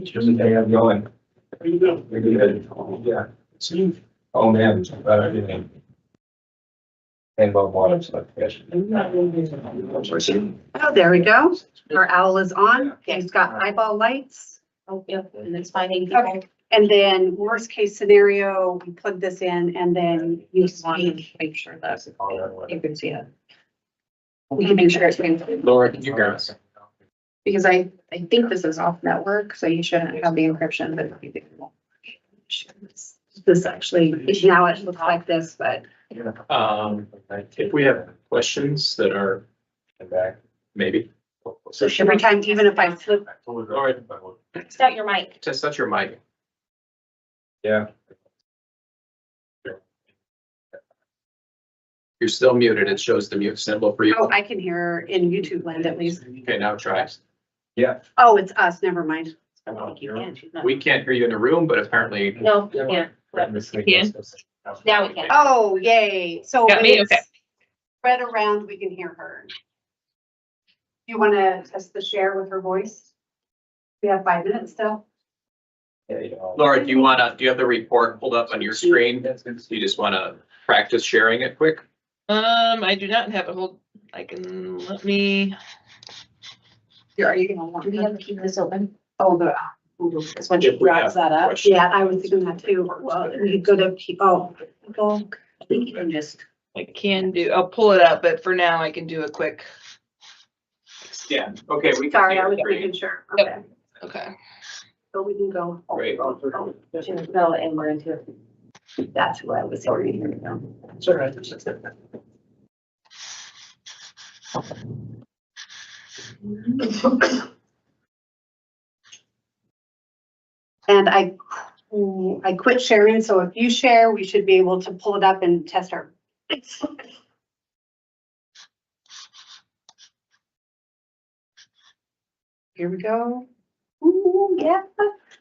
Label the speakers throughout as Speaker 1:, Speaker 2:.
Speaker 1: Just a I'm going.
Speaker 2: How you doing?
Speaker 1: Maybe, uh, yeah. Oh, man, it's about everything. And about water, so I guess.
Speaker 3: Oh, there we go. Our owl is on. He's got eyeball lights.
Speaker 4: Oh, yeah, and it's finding
Speaker 3: Okay.
Speaker 4: people.
Speaker 3: And then worst case scenario, we plug this in and then you
Speaker 4: want to
Speaker 3: speak.
Speaker 4: make sure that
Speaker 1: All that way.
Speaker 4: you can see it. We can make sure it's being,
Speaker 5: Laura, can you grab us?
Speaker 4: because I, I think this is off network, so you shouldn't have the encryption, but. you can-
Speaker 3: This actually, now it looks like this, but
Speaker 5: Um, if we have questions that are
Speaker 1: And back.
Speaker 5: maybe,
Speaker 1: So
Speaker 3: every time, even if I flip,
Speaker 1: All
Speaker 5: right.
Speaker 4: It's not your mic.
Speaker 5: test out your mic.
Speaker 1: Yeah.
Speaker 5: You're still muted. It shows the mute symbol for you.
Speaker 3: oh, I can hear in YouTube land at least.
Speaker 5: Okay, now try.
Speaker 1: Yeah.
Speaker 3: Oh, it's us. Never mind.
Speaker 5: We can't hear you in the room, but apparently
Speaker 4: No, yeah,
Speaker 1: Yeah.
Speaker 4: now we can.
Speaker 3: Oh, yay. So
Speaker 4: Got
Speaker 3: when
Speaker 4: me?
Speaker 3: it's
Speaker 4: Okay.
Speaker 3: spread around, we can hear her. You want to test the share with her voice? We have five minutes still.
Speaker 5: Laura, do you wanna, do you have the report pulled up on your screen? You just wanna practice sharing it quick?
Speaker 6: Um, I do not have a hold, I can, let me,
Speaker 3: Here, Are you going to want
Speaker 4: Do we
Speaker 3: to?
Speaker 4: have to keep this open?
Speaker 3: Oh, the,
Speaker 4: Because when she
Speaker 5: If we have
Speaker 4: wraps that up,
Speaker 5: Question.
Speaker 3: yeah, I was thinking that too. Well, you go to, P- oh, go.
Speaker 4: we can just.
Speaker 6: I can do, I'll pull it up, but for now I can do a quick,
Speaker 5: Yeah, okay. we can
Speaker 3: Sorry,
Speaker 5: see
Speaker 3: I
Speaker 5: your
Speaker 3: was
Speaker 5: screen.
Speaker 3: making sure.
Speaker 6: Yep.
Speaker 3: Okay,
Speaker 6: okay.
Speaker 3: so we can go.
Speaker 5: Great.
Speaker 4: She can fill it and we're into it.
Speaker 3: That's who I was hearing. And I, I quit sharing, so if you share, we should be able to pull it up and test our. Here we go. Ooh, yeah.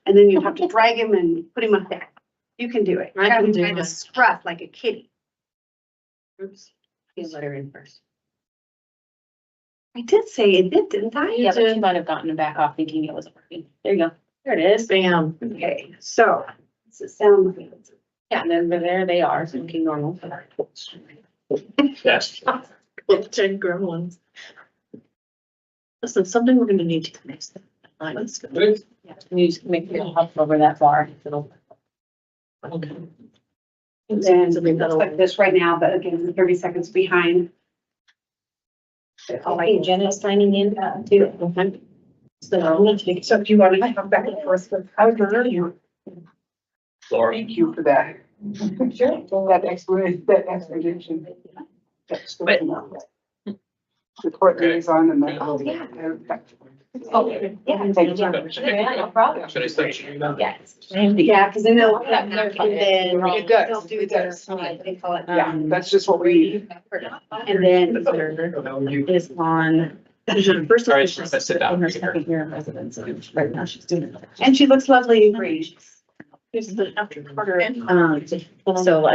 Speaker 3: And then you have to drag him and put him up there. You can do it.
Speaker 4: I can
Speaker 3: I'm
Speaker 4: do
Speaker 3: trying to
Speaker 4: it.
Speaker 3: scruff like a kitty. Oops.
Speaker 4: You let her in first.
Speaker 3: I did say it did, didn't I?
Speaker 4: Yeah, but she might have gotten it back off thinking it wasn't working. There you go. There it is. Bam.
Speaker 3: Okay, so, does it sound good?
Speaker 4: Yeah, and then there they are, so looking normal.
Speaker 5: Yes.
Speaker 7: Well, ten gremlins. Listen, someday we're gonna need to connect that. line. Let's go.
Speaker 4: Yeah, and you just make it hop over that bar. It'll.
Speaker 7: Okay.
Speaker 3: Then,
Speaker 7: Something
Speaker 3: looks
Speaker 7: that'll-
Speaker 3: like this right now, but again, thirty seconds behind.
Speaker 4: Oh, wait, Jenna's signing in uh, too. So I'm gonna take.
Speaker 7: So if you want to come back and forth with. I would prefer you.
Speaker 5: Laura.
Speaker 8: Thank you for that. Sure. That explanation, that explanation. That's good
Speaker 6: But-
Speaker 8: to know. The court liaison and the.
Speaker 4: Oh, yeah.
Speaker 8: Oh,
Speaker 4: Yeah.
Speaker 8: Thank you.
Speaker 4: Yeah, no problem.
Speaker 5: Should I start sharing now?
Speaker 4: Yes.
Speaker 3: Yeah, because then they'll,
Speaker 4: Yeah,
Speaker 3: and
Speaker 4: they're-
Speaker 3: then
Speaker 4: It
Speaker 7: does,
Speaker 3: they'll do
Speaker 7: it
Speaker 3: their,
Speaker 7: does.
Speaker 3: they call it,
Speaker 8: Yeah,
Speaker 3: um,
Speaker 8: that's just what we need.
Speaker 3: and then
Speaker 4: Is on. First.
Speaker 5: All right, she's gonna sit down.
Speaker 4: In her second year of residency, right now she's doing. it.
Speaker 3: and she looks lovely in green.
Speaker 7: This is the after.
Speaker 4: Um, so